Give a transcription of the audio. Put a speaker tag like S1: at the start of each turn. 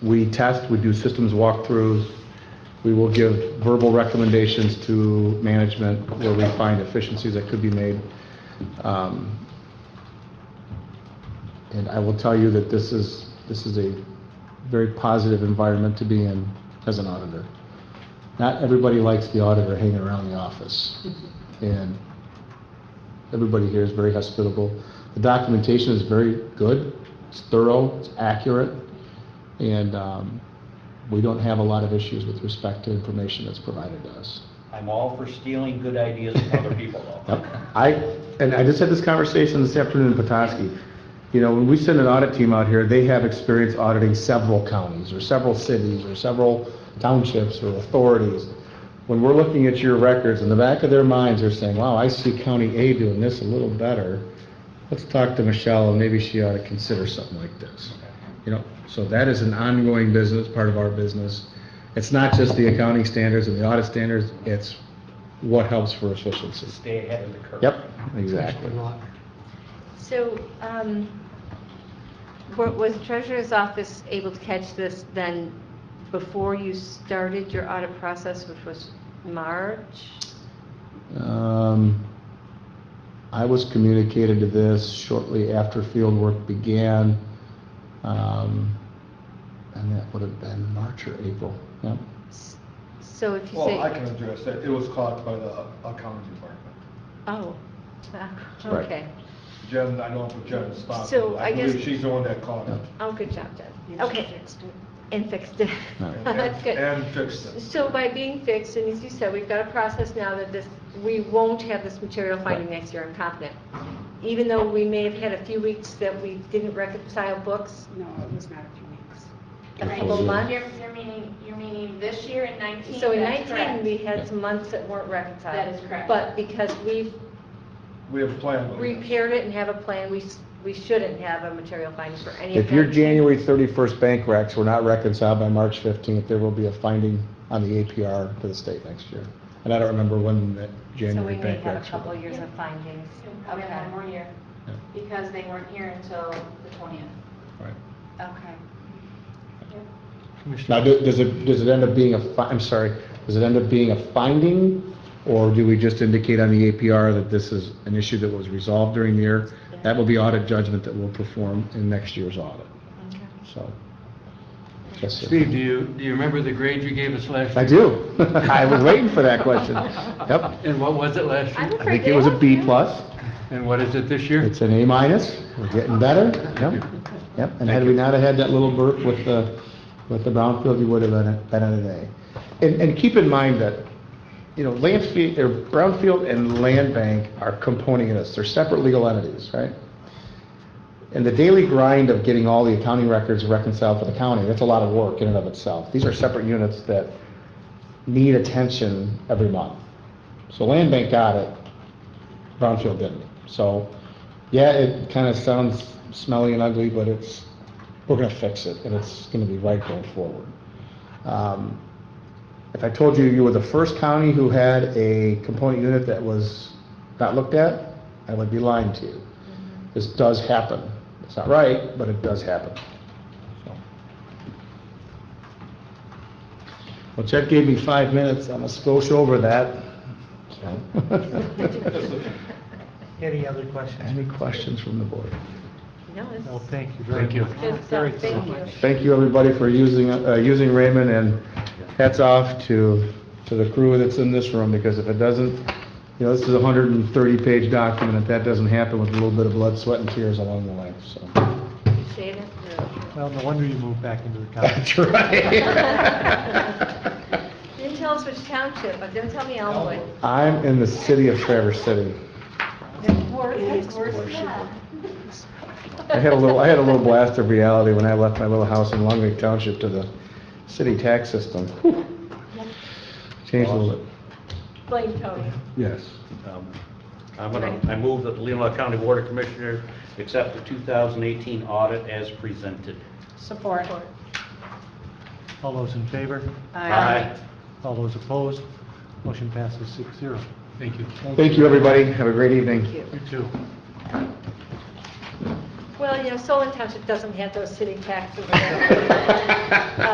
S1: We test, we do systems walkthroughs, we will give verbal recommendations to management where we find efficiencies that could be made. Um, And I will tell you that this is, this is a very positive environment to be in as an auditor. Not everybody likes the auditor hanging around the office, and everybody here is very hospitable. The documentation is very good, it's thorough, it's accurate, and um, we don't have a lot of issues with respect to information that's provided to us.
S2: I'm all for stealing good ideas from other people, though.
S1: Yep. I, and I just had this conversation this afternoon in Petoskey. You know, when we send an audit team out here, they have experience auditing several counties, or several cities, or several townships, or authorities. When we're looking at your records, in the back of their minds, they're saying, wow, I see County A doing this a little better. Let's talk to Michelle, and maybe she ought to consider something like this. You know, so that is an ongoing business, part of our business. It's not just the accounting standards and the audit standards, it's what helps for efficiency.
S2: Stay ahead of the curve.
S1: Yep, exactly.
S3: So, um, wa- was treasurer's office able to catch this then before you started your audit process, which was March?
S1: Um, I was communicated to this shortly after field work began. um, And that would have been March or April, yep.
S3: S- So if you say.
S4: Well, I can address that. It was caught by the accounting department.
S3: Oh, ah,
S1: Right.
S3: okay.
S4: Jen, I don't know if Jen stopped.
S3: So,
S4: it.
S3: I guess-
S4: believe she's the one that caught it.
S3: Oh, good job, Jen. Okay. And fixed it.
S1: No.
S4: And-
S3: That's good.
S4: And fixed it.
S3: So by being fixed, and as you said, we've got a process now that this, we won't have this material finding
S1: Right.
S3: next year, I'm confident. Even though we may have had a few weeks that we didn't reconcile books,
S5: No, it was not a few weeks.
S3: a
S1: Okay.
S3: couple months.
S6: You're, you're meaning, you're meaning this year in nineteen?
S3: So in
S6: That's
S3: 19, we
S6: correct.
S3: had some months that weren't reconciled.
S6: That is correct.
S3: But because we've
S4: We have planned on this.
S3: repaired it and have a plan, we, s- we shouldn't have a material finding for any of
S1: If
S3: that.
S1: your January 31st bank recs were not reconciled by March 15th, there will be a finding on the APR to the state next year. And I don't remember when that
S3: So
S1: January
S3: we may
S1: bank
S3: have a
S1: recs
S3: couple
S1: were.
S3: years of findings.
S6: And Probably one more year,
S1: Yeah.
S6: because they weren't here until the twentieth.
S1: Right.
S3: Okay.
S1: Now, do- does it, does it end up being a, fi- I'm sorry, does it end up being a finding? Or do we just indicate on the APR that this is an issue that was resolved during the year? That will be audit judgment that we'll perform in next year's audit,
S3: Okay.
S1: so. yes, sir.
S7: Steve, do you, do you remember the grade you gave us last
S1: I
S7: year?
S1: do. I was waiting for that question. Yep.
S7: And what was it last
S3: I'm
S7: year?
S1: I
S3: afraid
S1: think it
S3: they
S1: was a
S3: won't
S1: B
S3: do it.
S1: plus.
S7: And what is it this year?
S1: It's an A minus. We're getting better. Yep. Yep. And had we not have had that little burp with the, with the brownfield, you would have been, at- been at an A. And, and keep in mind that, you know, landfill, or brownfield and land bank are component units. They're separate legal entities, right? And the daily grind of getting all the accounting records reconciled for the county, that's a lot of work in and of itself. These are separate units that need attention every month. So land bank got it, Brownfield didn't. So, yeah, it kind of sounds smelly and ugly, but it's, we're gonna fix it, and it's gonna be right going forward. Um, If I told you you were the first county who had a component unit that was not looked at, I would be lying to you. This does happen. It's not right, but it does happen. So. Well, Chet gave me five minutes, I'm a skosh over that.
S8: Any other questions?
S1: Any questions from the board?
S3: No, this
S8: No,
S3: is
S8: thank you very
S7: Thank you.
S8: much.
S3: good
S8: Very
S3: stuff, thank
S8: thorough.
S3: you.
S1: Thank you, everybody, for using, uh, using Raymond, and hats off to, to the crew that's in this room, because if it doesn't, you know, this is a hundred and thirty-page document, if that doesn't happen with a little bit of blood, sweat, and tears along the way, so.
S3: Appreciate it.
S8: Well, no wonder you moved back into the
S1: That's
S8: college.
S1: right.
S3: You Didn't tell us which township, but didn't tell me Elmwood.
S1: I'm in the city of Traverse City. I had a little, I had a little blast of reality when I left my little house in Long Lake Township to the city tax system. Whew. Changed a little bit,
S3: Blaine Tony.
S1: yes.
S2: Um, I'm gonna, I move that the Leland County Board of Commissioners accept the 2018 audit as presented.
S5: Support.
S8: All those in favor?
S2: Aye.
S8: All those opposed? Motion passes six zero. Thank you.
S1: Thank you, everybody, have a great evening.
S8: You too.
S3: Well, you know, Solon Township doesn't have those sitting taxes.